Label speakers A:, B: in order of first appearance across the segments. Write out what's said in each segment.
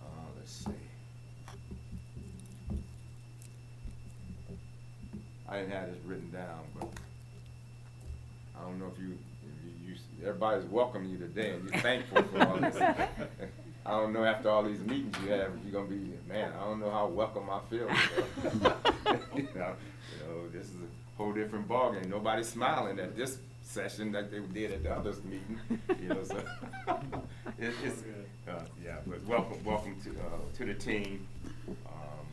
A: Uh, I didn't have this written down, but I don't know if you, if you- you, everybody's welcoming you today and you're thankful for all this. I don't know after all these meetings you have, if you're gonna be, man, I don't know how welcome I feel. you know." You know, you know, this is a whole different ballgame. Nobody's smiling at this session like they did at the others meeting, you know, so. It, it's, uh, yeah, but welcome, welcome to, uh, to the team. Um,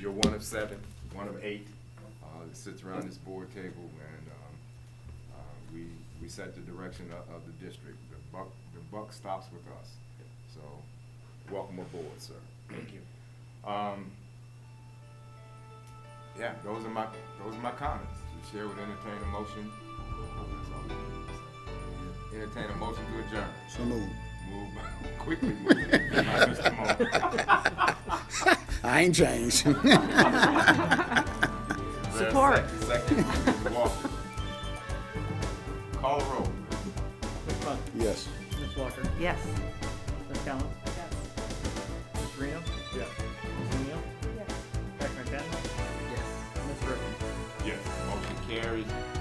A: You're one of seven, one of eight, uh, that sits around this board table and, um, uh, we, we set the direction of, of the district. The buck, the buck stops with us. So, welcome aboard, sir. Thank you. Um, yeah, those are my, those are my comments. The chair would entertain a motion. Entertain a motion to adjourn.
B: So moved.
A: Move, quickly move. My Mr. Moore.
B: I ain't changed.
A: Is there a
C: Support.
A: sec- Second, Mr. Walker. Call roll.
D: Ms. Bunt,
B: yes.
D: Ms. Walker,
C: Yes.
D: Ms. Collins, Ms. Reno. Yes. Ms. Neal. Yes. Dr. McFadden. Yes. Ms. Griffin.
A: Yes. Motion carries.